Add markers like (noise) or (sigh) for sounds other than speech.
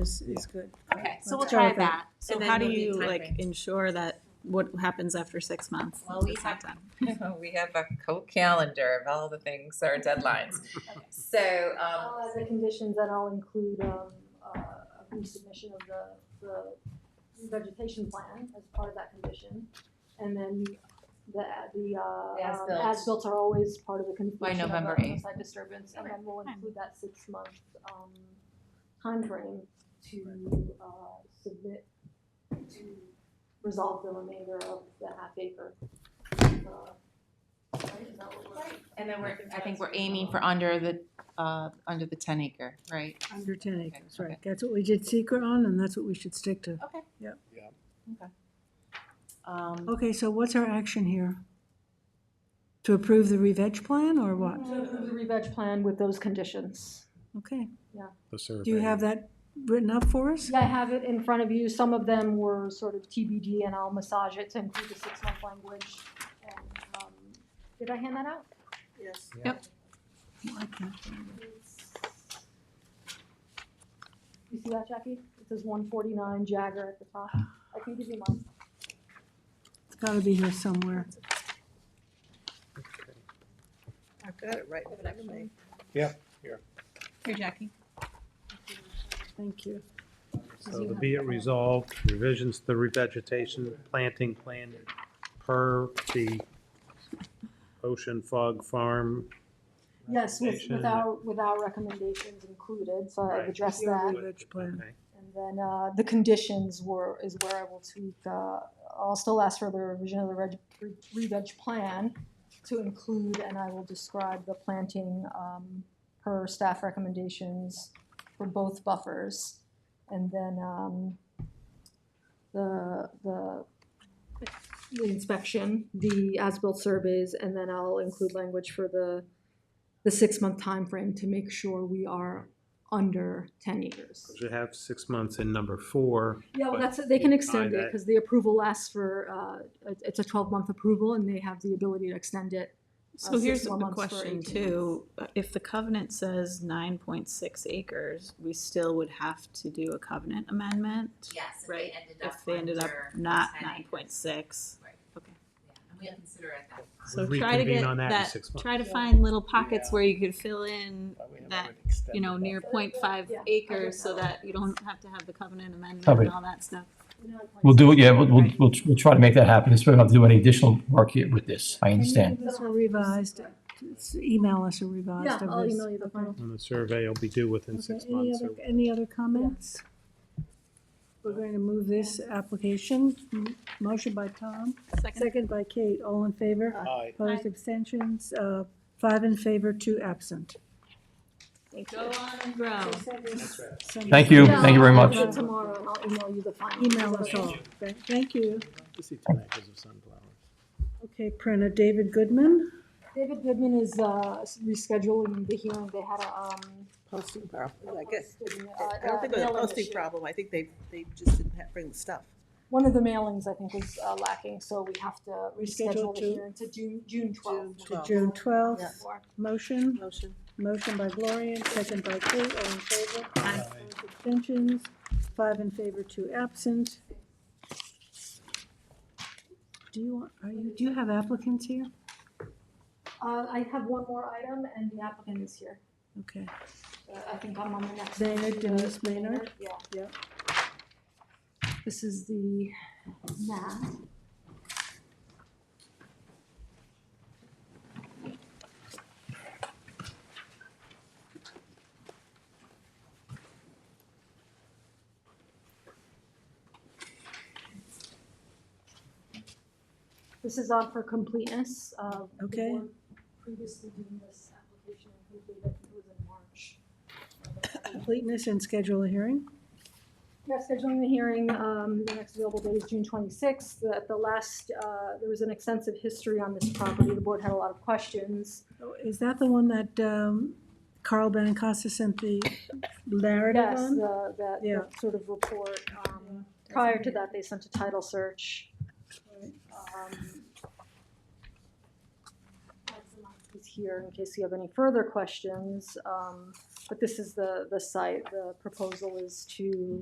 is, is good. Okay, so Let's we'll go try with that. that. So And then how do we'll you time like frames. ensure that what happens after six months? Well, we It's not have- done. (laughs) we have a co calendar of all the things, our deadlines. So, um, Uh, the conditions that I'll include, um, uh, a resubmission of the, the vegetation plan as part of that condition. And then the, the, The uh, um, as-built. as-built are always part of the completion of November the 8th. site disturbance, and then we'll Fine. include that six-month, um, timeframe to, uh, submit, to resolve the remainder of the half acre. uh, right? Is that what we're- and then we're, I think we're aiming for under the, uh, under the ten acre, right? Under ten acres, okay. right. That's what we did secret on and that's what we should stick to. Um, Okay, so what's our action here? To approve the re-veg plan or what? To approve the re-veg plan with those conditions. Okay. the survey. Do you have that written up for us? Yeah, I have it in front of you. Some of them were sort of TBD, and I'll massage it to include the six-month language. And, um, Did I hand that out? Yes. Yep. I can't find it. You see that, Jackie? It says one forty-nine Jagger at the top. I can give you mine. It's gotta be here somewhere. I've got it right in front of me. Here, Jackie. Thank you. So the be it resolved, revisions to the revegetation planting plan per the Ocean Fog Farm. Yes, with, with recommendation. our, with our recommendations included, so I've Right. addressed Your that. re-veg plan. Okay. And then, uh, the conditions were, is where I will tweak, uh, I'll still ask for the revision of the reg, re- re-veg plan to include, and I will describe the planting, um, per staff recommendations for both buffers. And then, um, the, the the inspection, the as-built surveys, and then I'll include language for the, the six-month time frame to make sure we are under ten years. Should have six months in number four. Yeah, well, but that's, they can you extend buy it, that- because the approval lasts for, uh, it- it's a twelve-month approval, and they have the ability to extend it. So six here's more a months for question 18 too. Uh, If the covenant says nine point six acres, we still would have to do a covenant amendment? Yes, if Right, they ended up If they ended up under not 10 nine acres. point six. Right. Okay. Yeah, And we'll consider it that. So We'll try to reconvene get on that in that, six months. try to Yeah. find little pockets Yeah. where you could fill in, But we haven't That, really extended you know, that. near point five Yeah, I acres just so know. that you don't have to have the covenant amendment Probably. and all that stuff. We'll do it, yeah, we'll, we'll, Right. we'll we'll try to make that happen. It's probably not to do any additional work here with this, Can I you understand. give us a revised, just email us a revised Yeah, of I'll this. email you the final. And the survey will be due within Okay, six any months. other, so- any other comments? We're going to move this application, M- motion by Tom, Second, second by Kate, all in favor? Aye. Opposed, abstentions, uh, five in favor, two absent. go on and grow. Thank you, thank you very Yeah, I'll much. do it Tomorrow, and I'll email you the final. Email us all, Th- thank you. You see ten acres of sunflowers. Okay, Prina, David Goodman, David Goodman is, uh, rescheduling the hearing, they had a, um, Posting problem, I guess. posting, uh, I don't think it was uh, a mailing posting issue. problem, I think they, they just didn't have, bring the stuff. One of the mailings, I think, was uh, lacking, so we have to Reschedule reschedule the to- hearing to June, June twelfth. to June Yeah. twelfth, motion, Motion. motion by Gloria, second by Kate, all in favor? Opposed, Abstentions, five in favor, two absent. Do you, want? are you, do you have applicants here? Uh, I have one more item, and the applicant is here. Okay. Uh, I think I'm on the next. Maynard, Denise Maynard? Yeah. Yep. This is the map. This is on for completeness of. the Okay. board Previously doing this application and completed, it was in March. (laughs) Completeness and schedule a hearing? Yeah, scheduling the hearing, um, the next available date is June twenty-sixth. At the last, uh, there was an extensive history on this property. The board had a lot of questions. Oh, Is that the one that um, Carl Benincasa sent the narrative Yes, on? the, that, Yeah. that sort of report. Um, prior to that, they sent a title search. Um, Is here in case you have any further questions. Um, But this is the, the site, the proposal is to